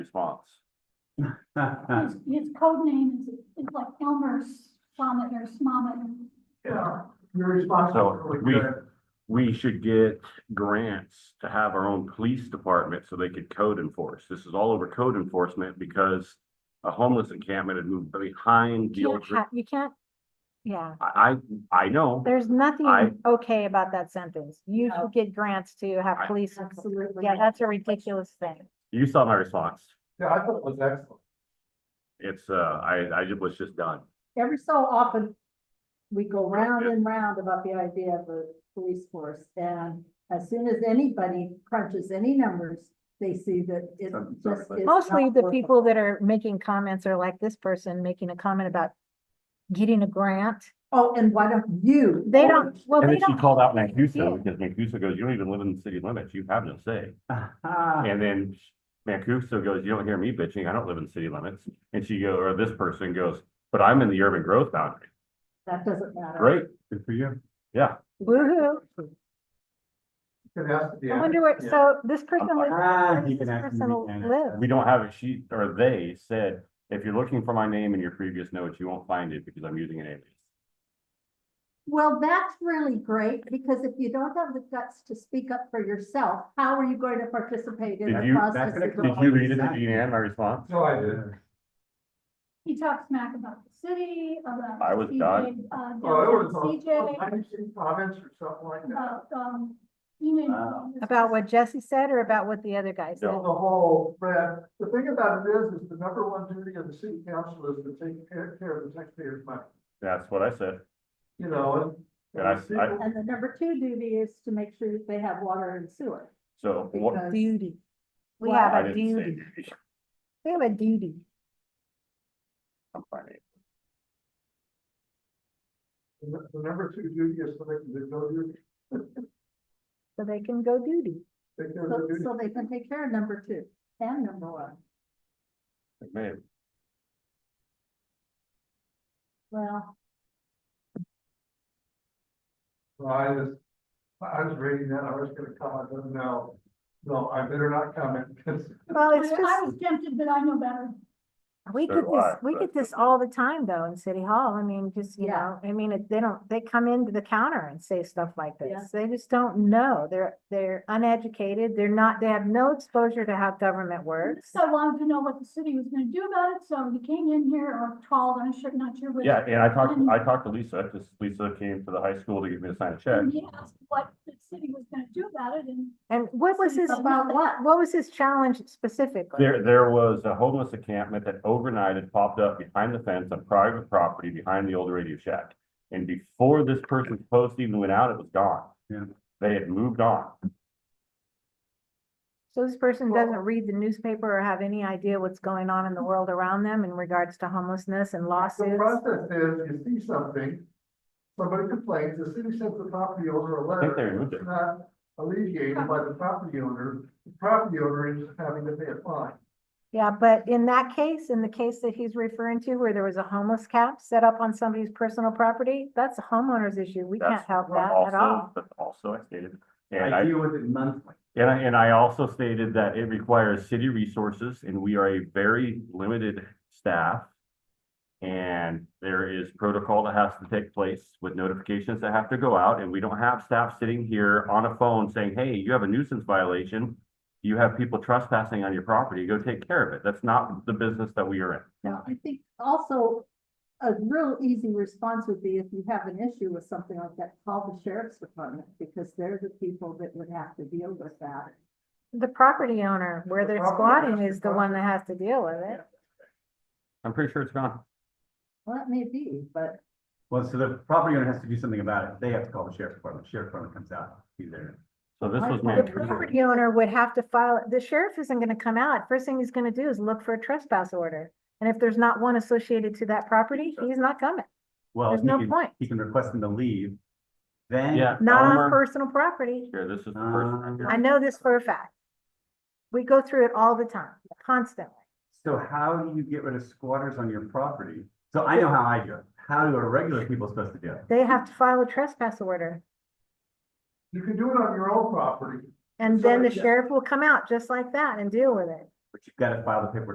response. Uh, His, his code name is, is like Elmer's Vomit or Smomit. Yeah, your response So, was really we- good. We should get grants to have our own police department so they could code enforce. This is all over code enforcement because a homeless encampment had moved behind the You old. can't, ha- you can't, yeah, I, I, I know. there's I- nothing okay about that sentence. You should get grants to have I- police. Absolutely. Yeah, that's a ridiculous thing. You saw my response. Yeah, I thought it was excellent. It's, uh, I, I ju- was just done. every so often, we go round and round about the idea of a police force, and as soon as anybody crunches any numbers, they see that it Um, sorry, just but- is. Mostly not the worth people it. that are making comments are like this person making a comment about getting a grant. Oh, and why don't you? They don't, well, And they then she don't, called out Mancuso Yeah. because Mancuso goes, you don't even live in the city limits. You have no say. And then Mancuso goes, you don't hear me bitching. I don't live in the city limits. And she go, or this person goes, but I'm in the urban growth boundary. That doesn't matter. Great. Good for you. Yeah. woo-hoo. It has to be. I wonder what, Yeah. so this person, I'm- lives- Ah, where you does this can ask person him again. live? We don't have it. She, or they said, if you're looking for my name in your previous notes, you won't find it because I'm using an alias. Well, that's really great, because if you don't have the guts to speak up for yourself, how are you going to participate in Did the you, process? gonna of come did growing? you read it, Jean Ann, my response? No, I did. He talks smack about the city, about. I was CJ, done. uh, Oh, it was downtown on- CJ, on nineteen comments or something like that. about, um, email. Wow. "Ah." about what Jesse said or about what the other guy said? On the whole, Brad, the thing about it is, is the number one duty of the city council is to take care, care of the taxpayers' money, That's what I said. you know, and. And I- the I- people- And the number two duty is to make sure that they have water and sewer, So what? because. Duty. We Well, have I a didn't say duty. We have a duty. I'm fine. The the number two duty is to make, the duty, So they can go duty. take care of So, the duty. so they can take care of number two and number one. Maybe. Well, So I just, I I was reading that, I was gonna comment, but no, no, I better not comment, because Well, it's I- I just, was tempted, but I know better. we So get do this, I, we but- get this all the time though in City Hall. I mean, just, you Yeah. know, I mean, it- they don't, they come into the counter and say stuff like Yeah. this. They just don't know. They're, they're uneducated. They're not, they have no exposure to how government works. So I wanted to know what the city was gonna do about it, so he came in here or called, I'm sure, not sure which. Yeah, and I talked, I talked to Lisa, because Lisa came to the high school to give me to sign a check. And he asked what the city was gonna do about it, and And what was his, about what? what was his challenge specifically? There, there was a homeless encampment that overnight had popped up behind the fence on private property behind the old radio shack. And before this person's post even went out, it was gone. Yeah. They had moved on. So this person Well- doesn't read the newspaper or have any idea what's going on in the world around them in regards to homelessness and The lawsuits. process is, you see something, somebody complains, the city sends the property owner a think they letter. removed it. It's not alleviated by the property owner, the property owner is having to pay a fine. Yeah, but in that case, in the case that he's referring to where there was a homeless camp set up on somebody's personal property, that's a homeowner's issue. We can't That's help what that at Also, all. but also I stated, and I I, deal with it monthly. and I, and I also stated that it requires city resources and we are a very limited staff. And there is protocol that has to take place with notifications that have to go out and we don't have staff sitting here on a phone saying, hey, you have a nuisance violation. You have people trespassing on your property, go take care of it. That's not the business that we are in. Now, I think also a real easy response would be if you have an issue with something like that, call the sheriff's department because they're the people that would have to deal with that. The property owner where The they're property squatting owner is the one that has to deal with it. I'm pretty sure it's gone. Well, that may be, but Well, so the property owner has to do something about it. They have to call the sheriff's department. Sheriff's department comes out, be there. So this was I- my. The property owner would have to file, the sheriff isn't gonna come out. First thing he's gonna do is look for a trespass order. And if there's not one associated to that property, he's not coming. Oh, Well, There's he no can, point. he can request them to leave. Then. Yeah. Not on Elmer- personal property. Here, this is the person. Um, I know this for a fact. We go through it all the time, constantly. So how do you get rid of squatters on your property? So I know how I do it. How do our regular people supposed to do it? They have to file a trespass order You can do it on your own property. and So, then the yeah. sheriff will come out just like that and deal with it. But you've got to file the paperwork